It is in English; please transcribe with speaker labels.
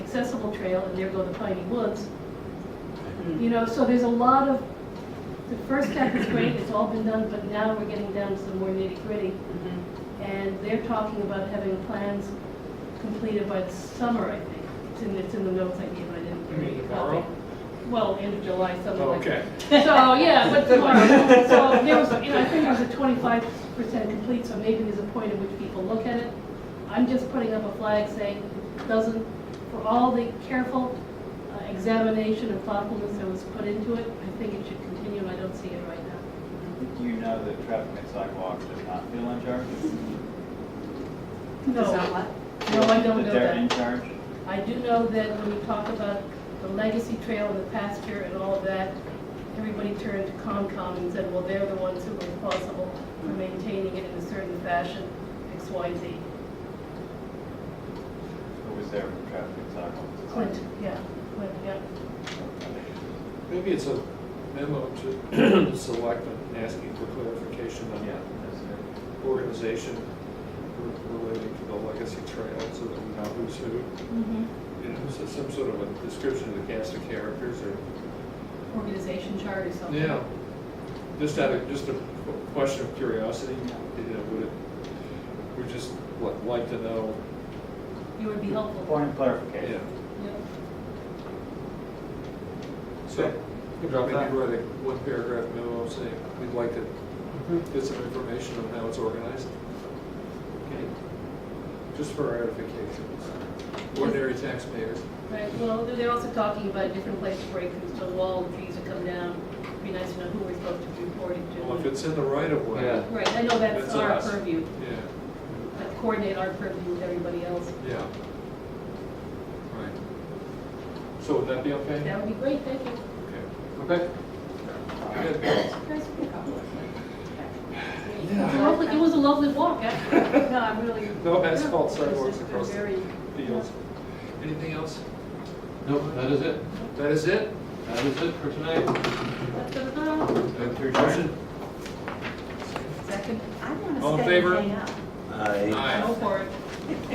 Speaker 1: accessible trail, and there go the piney woods.
Speaker 2: Mm.
Speaker 1: You know, so there's a lot of, the first step is great, it's all been done, but now we're getting down to the more nitty gritty.
Speaker 2: Mhm.
Speaker 1: And they're talking about having plans completed by the summer, I think. It's in, it's in the notes I gave, I didn't
Speaker 3: You
Speaker 1: bring
Speaker 3: mean
Speaker 1: it.
Speaker 3: tomorrow?
Speaker 1: Well, end of July, something like that.
Speaker 3: Okay.
Speaker 1: So, yeah, but tomorrow, so there was, you know, I think it was a twenty-five percent complete, so maybe there's a point at which people look at it. I'm just putting up a flag saying, doesn't, for all the careful uh, examination and thoughtfulness that was put into it, I think it should continue, and I don't see it right now.
Speaker 4: Do you know that traffic and sidewalks are not still in charge?
Speaker 2: It's not
Speaker 1: No,
Speaker 2: what?
Speaker 1: no, I don't know
Speaker 4: That they're in
Speaker 1: that.
Speaker 4: charge?
Speaker 1: I do know that when you talk about the legacy trail and the pasture and all of that, everybody turned to Concom and said, well, they're the ones who were responsible for maintaining it in a certain fashion, X, Y, Z.
Speaker 4: Who was there with traffic and sidewalks?
Speaker 1: Clint, yeah, Clint, yeah.
Speaker 3: Maybe it's a memo to the selectmen asking for clarification on
Speaker 4: Yeah, that's it.
Speaker 3: organization relating to the legacy trail so that we know who's who. You know, so some sort of a description of the cast of characters or,
Speaker 1: Organization chart or something.
Speaker 3: yeah. Just out of, just a qu- question of curiosity, you know, would it, we just li- like to know,
Speaker 1: It would be helpful.
Speaker 4: Point of
Speaker 3: yeah.
Speaker 4: clarification.
Speaker 1: Yeah.
Speaker 3: So,
Speaker 5: You
Speaker 3: maybe
Speaker 5: drop
Speaker 3: write
Speaker 5: that.
Speaker 3: a one paragraph memo saying, we'd like to
Speaker 5: Mm-hmm.
Speaker 3: get some information on how it's organized. Okay. Just for our edification, ordinary taxpayers.
Speaker 1: Right, well, they're they're also talking about different places where it comes to the wall, trees that come down. It'd be nice to know who we're supposed to be reporting to.
Speaker 3: Well, if it's in the right of way.
Speaker 5: Yeah.
Speaker 1: Right, I know that's
Speaker 3: That's
Speaker 1: our
Speaker 3: us.
Speaker 1: purview,
Speaker 3: Yeah,
Speaker 1: but coordinate our purview with everybody else.
Speaker 3: yeah. Right. So would that be okay?
Speaker 1: That would be great, thank you.
Speaker 3: Okay.
Speaker 5: Okay.
Speaker 3: Good.
Speaker 2: Surprised we got one. Okay.
Speaker 1: It was a lovely- It was a lovely walk, actually.
Speaker 2: No, I'm really.
Speaker 3: No asphalt
Speaker 2: Yeah, it's
Speaker 3: sidewalks
Speaker 2: just
Speaker 3: across
Speaker 2: been
Speaker 3: the
Speaker 2: very-
Speaker 3: fields. Anything else?
Speaker 5: Nope, that is it.
Speaker 3: That is it?
Speaker 5: That is it for tonight.
Speaker 1: Da-da-da.
Speaker 3: Motion?
Speaker 1: Second,
Speaker 2: I want to
Speaker 3: All
Speaker 2: stay
Speaker 3: in
Speaker 2: and
Speaker 3: favor?
Speaker 2: hang out.
Speaker 6: Aye.
Speaker 1: go for it.